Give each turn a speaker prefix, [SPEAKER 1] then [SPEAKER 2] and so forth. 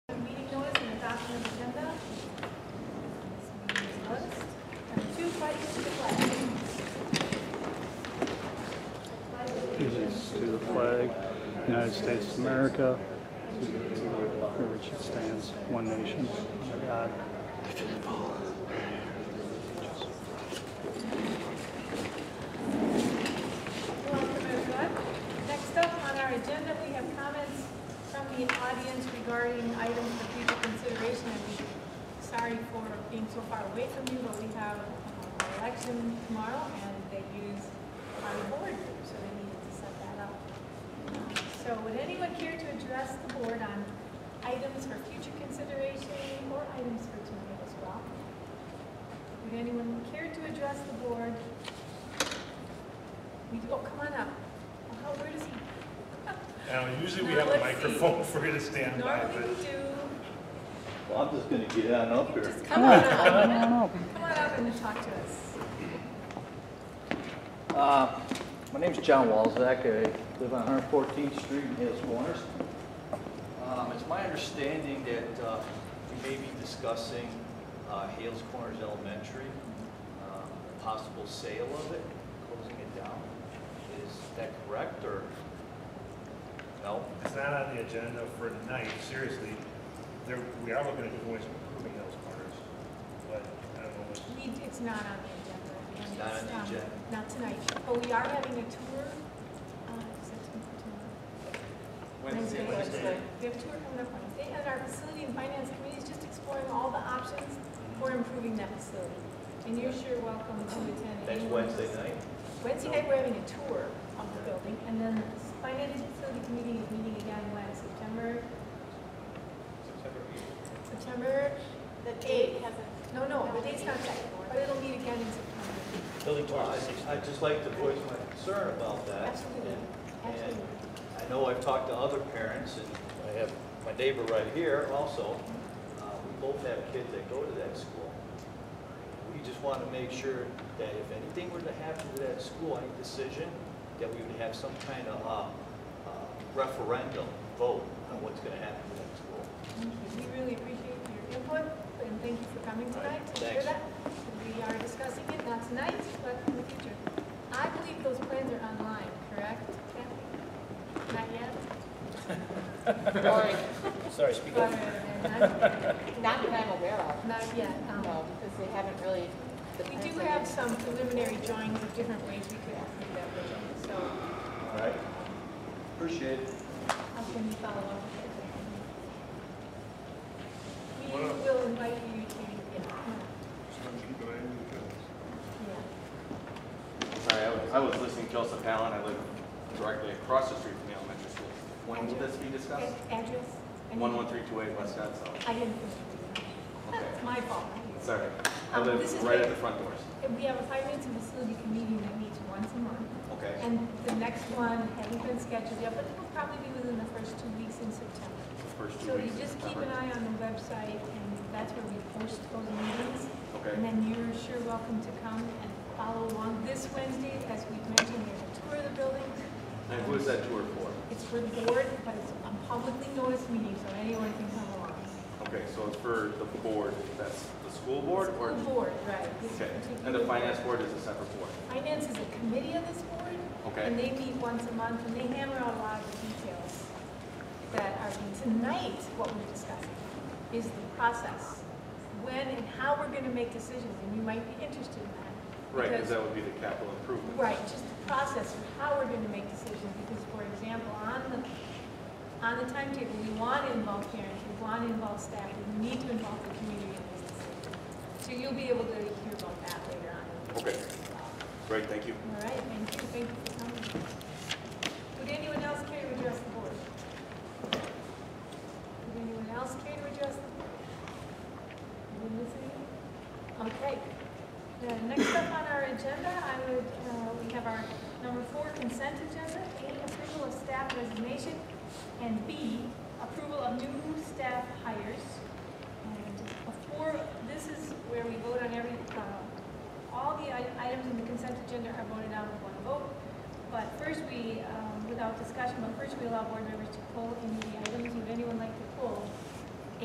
[SPEAKER 1] United States of America, for which it stands, one nation, under God,
[SPEAKER 2] Welcome, everyone. Next up on our agenda, we have comments from the audience regarding items for future consideration. And we- Sorry for being so far away from you, but we have an election tomorrow, and they use our board, so they needed to set that up. So would anyone care to address the board on items for future consideration or items for tonight as well? Would anyone care to address the board we do, oh, come on up. Oh, how- where does he,
[SPEAKER 3] Now, usually we have a
[SPEAKER 2] Let's see.
[SPEAKER 3] microphone for you to stand by,
[SPEAKER 2] normally we
[SPEAKER 3] but
[SPEAKER 2] do,
[SPEAKER 4] Well, I'm just gonna get on up here.
[SPEAKER 2] just come on up. Come on up and talk to us.
[SPEAKER 4] Uh, My name's John Walzak. I live on 114th Street in Hales Corners. Um, It's my understanding that uh, we may be discussing uh, Hales Corners Elementary, um, the possible sale of it, closing it down. Is that correct, or? No?
[SPEAKER 3] it's not on the agenda for tonight, seriously. There, we are looking at doing some improving those corners, but I don't know what's.
[SPEAKER 2] We, it's not on the agenda. and
[SPEAKER 4] It's not on the
[SPEAKER 2] um,
[SPEAKER 4] agenda.
[SPEAKER 2] Not tonight, but we are having a tour, uh, is it tomorrow? Wednesday. We have a tour coming up Wednesday, and our facility and finance committee is just exploring all the options for improving that facility. And you're sure welcome to attend.
[SPEAKER 4] That's
[SPEAKER 2] anyone who's-
[SPEAKER 4] Wednesday night?
[SPEAKER 2] Wednesday night, we're having a tour of the building, and then the finance and facility committee is meeting again when, September, September?
[SPEAKER 5] The date hasn't,
[SPEAKER 2] No, no, the date's not set, but it'll meet again in September.
[SPEAKER 4] Building I'd just like to voice my concern about that.
[SPEAKER 2] Absolutely,
[SPEAKER 4] and-
[SPEAKER 2] absolutely.
[SPEAKER 4] I know I've talked to other parents, and I have my neighbor right here also. Uh, We both have kids that go to that school. We just want to make sure that if anything were to happen to that school, any decision, that we would have some kind of uh, uh, referendum vote on what's going to happen to that school.
[SPEAKER 2] Thank you. We really appreciate your input, and thank you for coming
[SPEAKER 4] All right,
[SPEAKER 2] tonight to hear
[SPEAKER 4] thanks.
[SPEAKER 2] that. We are discussing it, not tonight, but in the future. I believe those plans are online, correct? Kathy? Not yet?
[SPEAKER 6] Sorry, speak up.
[SPEAKER 2] But, uh,
[SPEAKER 5] not that I'm aware of,
[SPEAKER 2] Not not yet. um,
[SPEAKER 5] no, because they haven't really. the
[SPEAKER 2] We do
[SPEAKER 5] plans are-
[SPEAKER 2] have some preliminary drawings of different ways we could improve that building, so
[SPEAKER 4] All right? Appreciate it.
[SPEAKER 2] how um, can we follow up with that? We will invite you to, yeah, come on. yeah.
[SPEAKER 7] Sorry, I was, I was listening to Joseph Allen, I live directly across the street from the elementary school. When will this be discussed?
[SPEAKER 2] A- Address? I need-
[SPEAKER 7] 11328 West Scottsdale.
[SPEAKER 2] I didn't. think of it.
[SPEAKER 7] Okay.
[SPEAKER 2] It's my fault. not yours.
[SPEAKER 7] Sorry, I
[SPEAKER 2] Um, this is
[SPEAKER 7] live right
[SPEAKER 2] where-
[SPEAKER 7] at the front doors.
[SPEAKER 2] And We have a finance and facility committee that meets once a month.
[SPEAKER 7] Okay.
[SPEAKER 2] And the next one hasn't been scheduled yet, but it will probably be within the first two weeks in September.
[SPEAKER 7] The first two
[SPEAKER 2] So you
[SPEAKER 7] weeks of
[SPEAKER 2] just keep an
[SPEAKER 7] September.
[SPEAKER 2] eye on the website, and that's where we post those meetings.
[SPEAKER 7] Okay.
[SPEAKER 2] And then you're sure welcome to come and follow along this Wednesday, as we've mentioned, there's a tour of the building.
[SPEAKER 7] And who is that tour for?
[SPEAKER 2] It's for the board, but it's a publicly noticed meeting, so anyone can come along.
[SPEAKER 7] Okay, so it's for the board, that's the school board or?
[SPEAKER 2] School board, right. this
[SPEAKER 7] Okay, and
[SPEAKER 2] particular-
[SPEAKER 7] the finance board is a separate board.
[SPEAKER 2] Finance is a committee of this board.
[SPEAKER 7] Okay.
[SPEAKER 2] And they meet once a month, and they hammer out a lot of the details that are, tonight, what we're discussing is the process, when and how we're going to make decisions, and you might be interested in that.
[SPEAKER 7] Right, because that would be the capital improvement.
[SPEAKER 2] Right, just the process of how we're going to make decisions, because, for example, on the, on the timetable, we want to involve parents, we want to involve staff, we need to involve the community in this decision. So you'll be able to hear about that later on.
[SPEAKER 7] Okay. Great, thank you.
[SPEAKER 2] All right, thank you, thank you for coming. Would anyone else care to address the board? Would anyone else care to address the board? Anyone listening? Okay. Uh, Next up on our agenda, I would, uh, we have our number four consent agenda, A, approval of staff resignation, and B, approval of new staff hires. And before, this is where we vote on every, uh, all the i- items in the consent agenda are voted on with one vote. But first, we, um, without discussion, but first we allow board members to pull in the